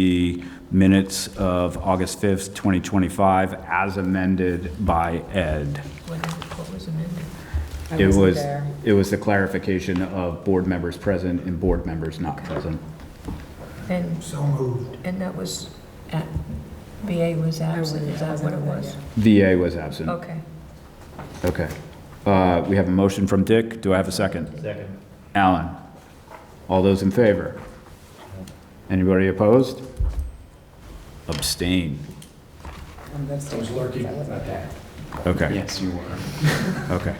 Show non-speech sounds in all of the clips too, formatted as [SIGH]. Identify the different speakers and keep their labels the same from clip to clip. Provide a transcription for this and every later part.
Speaker 1: the minutes of August 5th, 2025, as amended by Ed.
Speaker 2: What what was amended?
Speaker 3: I
Speaker 1: It
Speaker 3: wasn't
Speaker 1: was,
Speaker 3: there.
Speaker 1: it was the clarification of board members present and board members not present.
Speaker 2: And,
Speaker 4: So moved.
Speaker 2: and that was, at- BA was absent, is that what it was?
Speaker 1: VA was absent.
Speaker 2: Okay.
Speaker 1: Okay. Uh, We have a motion from Dick. Do I have a second? Second. Alan? All those in favor? Anybody opposed? Abstain.
Speaker 3: I'm abstaining. I wasn't there.
Speaker 1: Okay.
Speaker 5: Yes, you were.
Speaker 1: [LAUGHS] Okay.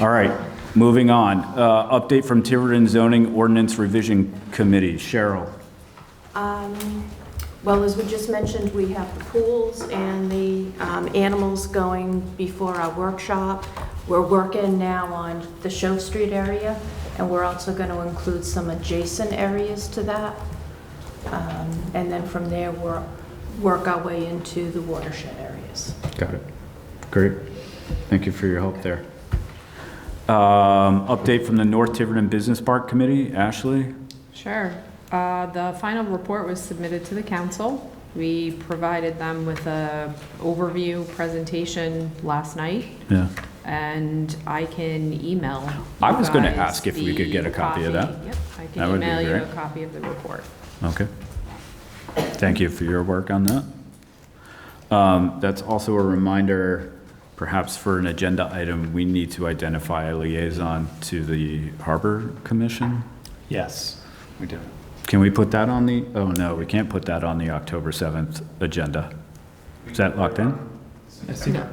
Speaker 1: All right, moving on. Uh, Update from Tiverton Zoning Ordinance Revision Committee. Cheryl?
Speaker 6: Um, Well, as we just mentioned, we have the pools and the um, animals going before our workshop. We're working now on the Show Street area, and we're also going to include some adjacent areas to that. Um, And then from there, we'll work our way into the watershed areas.
Speaker 1: Got it. Great. Thank you for your help there. Um, Update from the North Tiverton Business Park Committee. Ashley?
Speaker 7: Sure. Uh, The final report was submitted to the council. We provided them with a overview presentation last night,
Speaker 1: Yeah.
Speaker 7: and I can email you
Speaker 1: I was gonna
Speaker 7: guys
Speaker 1: ask if we could
Speaker 7: the
Speaker 1: get a copy of that.
Speaker 7: Yep, I
Speaker 1: That
Speaker 7: can
Speaker 1: would be
Speaker 7: email you a
Speaker 1: great.
Speaker 7: copy of the report.
Speaker 1: Okay. Thank you for your work on that. Um, That's also a reminder, perhaps for an agenda item, we need to identify a liaison to the Harbor Commission.
Speaker 5: Yes, we do.
Speaker 1: Can we put that on the, oh no, we can't put that on the October 7th agenda. Is that locked in?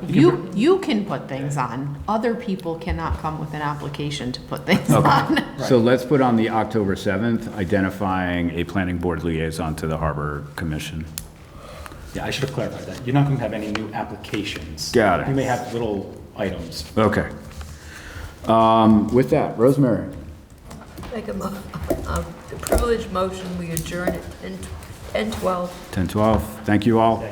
Speaker 7: You, you can put things on. Other people cannot come with an application to put things [LAUGHS] on.
Speaker 1: So let's put on the October 7th, identifying a planning board liaison to the Harbor Commission.
Speaker 5: Yeah, I should have clarified that. You're not going to have any new applications.
Speaker 1: Got it.
Speaker 5: You may have little items.
Speaker 1: Okay. Um, With that, Rosemary?
Speaker 2: Make a, mo- [LAUGHS] uh, the privilege motion, we adjourn at 10 12.
Speaker 1: 10:12. Thank you all.